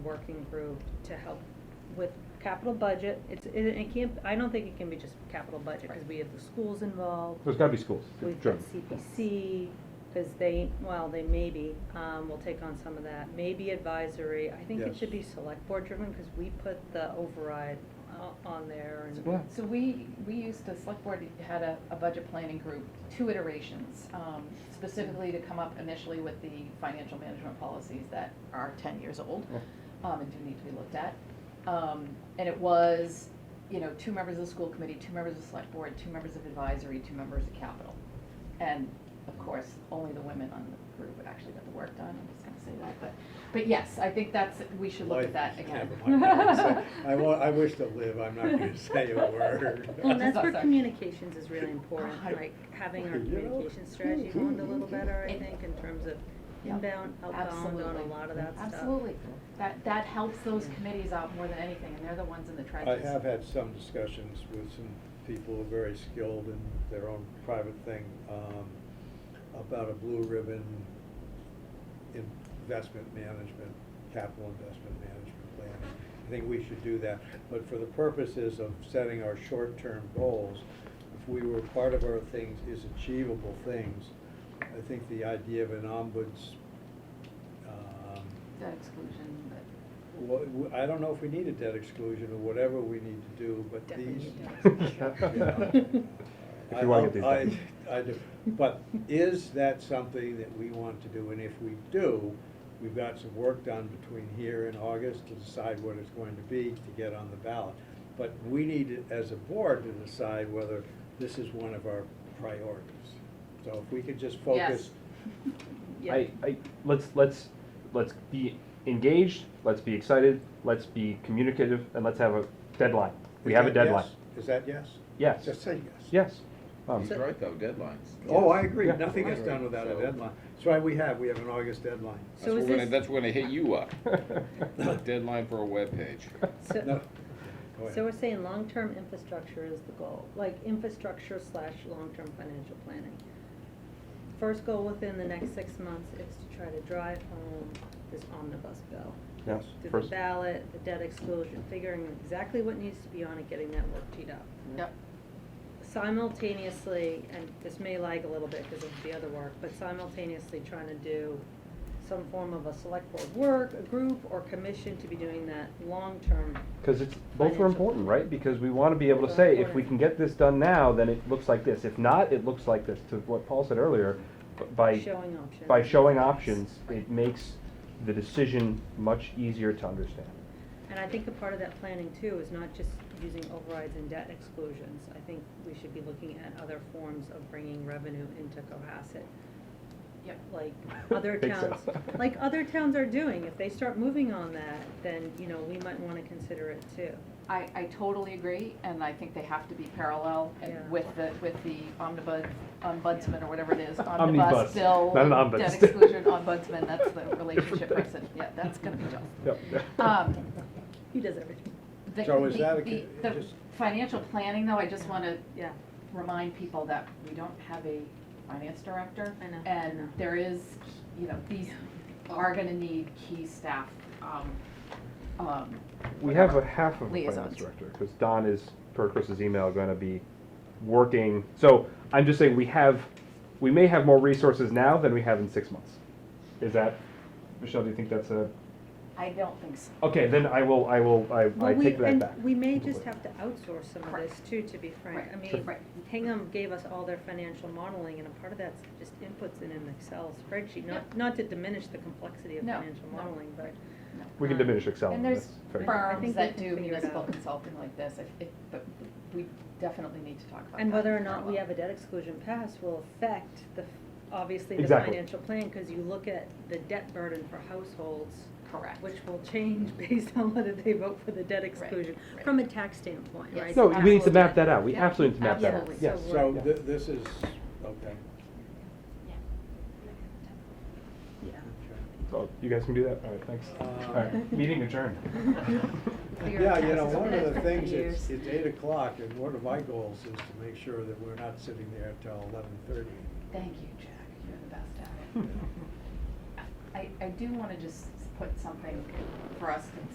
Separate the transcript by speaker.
Speaker 1: working group to help with capital budget. It's, it, it can't, I don't think it can be just capital budget, because we have the schools involved.
Speaker 2: There's gotta be schools,
Speaker 1: We've
Speaker 2: sure.
Speaker 1: got CPC, because they, well, they maybe, um, will take on some of that, maybe advisory. I think it
Speaker 3: Yes.
Speaker 1: should be select board driven, because we put the override o- on there
Speaker 2: Yeah.
Speaker 1: and.
Speaker 4: So we, we used to, select board had a, a budget planning group, two iterations, um, specifically to come up initially with the financial management policies that are ten years old, um, and do need to be looked at. Um, and it was, you know, two members of the school committee, two members of the select board, two members of advisory, two members of capital. And of course, only the women on the group actually got the work done, I'm just gonna say that, but, but yes, I think that's, we should look at that again.
Speaker 3: Never mind, I won't say- I want, I wish to live, I'm not gonna say a word.
Speaker 1: Well, and that's where
Speaker 4: Sorry.
Speaker 1: communications is really important,
Speaker 4: God.
Speaker 1: like having our
Speaker 3: You know?
Speaker 1: communication strategy honed a little better, I think, in terms of
Speaker 4: Yep.
Speaker 1: inbound, outbound, on a
Speaker 4: Absolutely.
Speaker 1: lot of that stuff.
Speaker 4: Absolutely. That, that helps those committees out more than anything, and they're the ones in the
Speaker 3: I
Speaker 4: trenches.
Speaker 3: have had some discussions with some people who are very skilled in their own private thing, um, about a blue ribbon investment management, capital investment management plan. I think we should do that, but for the purposes of setting our short-term goals, if we were, part of our things is achievable things, I think the idea of an ombuds, um,
Speaker 4: That exclusion, but
Speaker 3: Wha- w- I don't know if we need a debt exclusion or whatever we need to do, but
Speaker 1: Definitely
Speaker 3: these.
Speaker 2: If you wanna get these
Speaker 3: I-
Speaker 2: done.
Speaker 3: I, I do, but is that something that we want to do? And if we do, we've got some work done between here and August to decide what it's going to be to get on the ballot. But we need, it as a board, to decide whether this is one of our priorities. So if we could just focus.
Speaker 1: Yeah.
Speaker 2: I, I, let's, let's, let's be engaged, let's be excited, let's be communicative, and let's have a deadline. We
Speaker 3: Is
Speaker 2: have a
Speaker 3: that yes?
Speaker 2: deadline.
Speaker 3: Is that yes?
Speaker 2: Yes,
Speaker 3: Just say yes.
Speaker 2: yes. Um,
Speaker 5: He's right though, deadlines.
Speaker 3: Oh, I agree,
Speaker 2: Yeah.
Speaker 3: nothing gets done without a deadline. That's why we have, we have an August deadline.
Speaker 5: That's
Speaker 1: So
Speaker 5: when
Speaker 1: is
Speaker 5: we're gonna,
Speaker 1: this,
Speaker 5: that's when they hit you up, A deadline for a webpage.
Speaker 1: so,
Speaker 3: No. Go
Speaker 1: So
Speaker 3: ahead.
Speaker 1: we're saying long-term infrastructure is the goal, like infrastructure slash long-term financial planning. First goal within the next six months is to try to drive home this omnibus bill.
Speaker 2: Yeah,
Speaker 1: Through the
Speaker 2: first,
Speaker 1: ballot, the debt exclusion, figuring exactly what needs to be on it, getting that work teed up.
Speaker 4: Yep.
Speaker 1: Simultaneously, and this may lag a little bit because of the other work, but simultaneously trying to do some form of a select board work, a group, or commission to be doing that long-term
Speaker 2: because it's, both are
Speaker 1: Financial.
Speaker 2: important, right? Because we wanna be able to say, if we can get this done now, then it looks like this. If not, it looks like this, to what Paul said earlier, b- by.
Speaker 1: showing options.
Speaker 2: By showing options, it makes the decision much easier to understand.
Speaker 1: And I think a part of that planning too is not just using overrides and debt exclusions. I think we should be looking at other forms of bringing revenue into Cohasset.
Speaker 4: Yep.
Speaker 1: Like other
Speaker 2: Think so.
Speaker 1: towns, like other towns are doing. If they start moving on that, then, you know, we might wanna consider it too.
Speaker 4: I, I totally agree, and I think they have to be parallel and
Speaker 1: Yeah.
Speaker 4: with the, with the omnibus, ombudsman or whatever it is,
Speaker 2: Omnibus,
Speaker 4: omnibus bill.
Speaker 2: not an ombuds.
Speaker 4: Debt exclusion, ombudsman, that's the
Speaker 2: Different
Speaker 4: relationship
Speaker 2: thing.
Speaker 4: person, yeah, that's gonna be tough.
Speaker 2: Yep.
Speaker 4: Um,
Speaker 1: He does everything.
Speaker 4: the-
Speaker 3: So is
Speaker 4: the-
Speaker 3: that a
Speaker 4: the-
Speaker 3: con-
Speaker 4: The
Speaker 3: just-
Speaker 4: financial planning, though, I just wanna
Speaker 1: Yeah.
Speaker 4: remind people that we don't have a finance director.
Speaker 1: I know, I know.
Speaker 4: And there is, you know, these are gonna need key staff, um, um,
Speaker 2: We have a half of a finance
Speaker 4: Liaisons.
Speaker 2: director, because Don is, per Chris's email, gonna be working, so I'm just saying, we have, we may have more resources now than we have in six months. Is that, Michelle, do you think that's a,
Speaker 4: I don't think so.
Speaker 2: okay, then I will, I will, I, I
Speaker 1: Well, we-
Speaker 2: take that
Speaker 1: and
Speaker 2: back.
Speaker 1: We may just have to outsource some of
Speaker 4: Correct.
Speaker 1: this too, to be frank. I
Speaker 4: Right,
Speaker 1: mean,
Speaker 4: right.
Speaker 1: Hingham gave us all their financial modeling, and a part of that's just inputs in an Excel spreadsheet, not,
Speaker 4: Yep.
Speaker 1: not to diminish the complexity of
Speaker 4: No,
Speaker 1: financial
Speaker 4: no.
Speaker 1: modeling, but.
Speaker 4: No.
Speaker 2: We
Speaker 1: uh,
Speaker 2: can diminish Excel,
Speaker 4: And
Speaker 2: that's
Speaker 4: there's
Speaker 2: very.
Speaker 1: fir- I
Speaker 4: firms
Speaker 1: think
Speaker 4: that
Speaker 1: we
Speaker 4: do
Speaker 1: can figure it
Speaker 4: municipal
Speaker 1: out.
Speaker 4: consulting like this, if, if, but we definitely need to talk about that.
Speaker 1: And whether or
Speaker 4: in
Speaker 1: not we
Speaker 4: parallel.
Speaker 1: have a debt exclusion pass will affect the, f- obviously, the
Speaker 2: Exactly.
Speaker 1: financial plan, because you look at the debt burden for households,
Speaker 4: Correct.
Speaker 1: which will change based on whether they vote for the debt exclusion,
Speaker 4: right.
Speaker 1: from a tax standpoint,
Speaker 4: Yes.
Speaker 1: right?
Speaker 2: No, we need to
Speaker 1: Absolutely.
Speaker 2: map that out, we
Speaker 4: Yeah,
Speaker 2: absolutely need to map that out,
Speaker 4: absolutely.
Speaker 2: yes.
Speaker 1: So
Speaker 3: So
Speaker 2: Yeah.
Speaker 3: th- this is, okay.
Speaker 1: Yeah.
Speaker 2: So, you guys can do that, all right, thanks.
Speaker 3: Uh,
Speaker 2: All right, meeting adjourned.
Speaker 4: Clear
Speaker 3: Yeah, you know,
Speaker 4: taxes
Speaker 3: one
Speaker 4: over
Speaker 3: of
Speaker 4: the
Speaker 3: the
Speaker 4: next
Speaker 3: things,
Speaker 4: 50 years.
Speaker 3: it's, it's eight o'clock, and one of my goals is to make sure that we're not sitting there till eleven thirty.
Speaker 4: Thank you, Jack, you're the best at it. I, I do wanna just put something for us to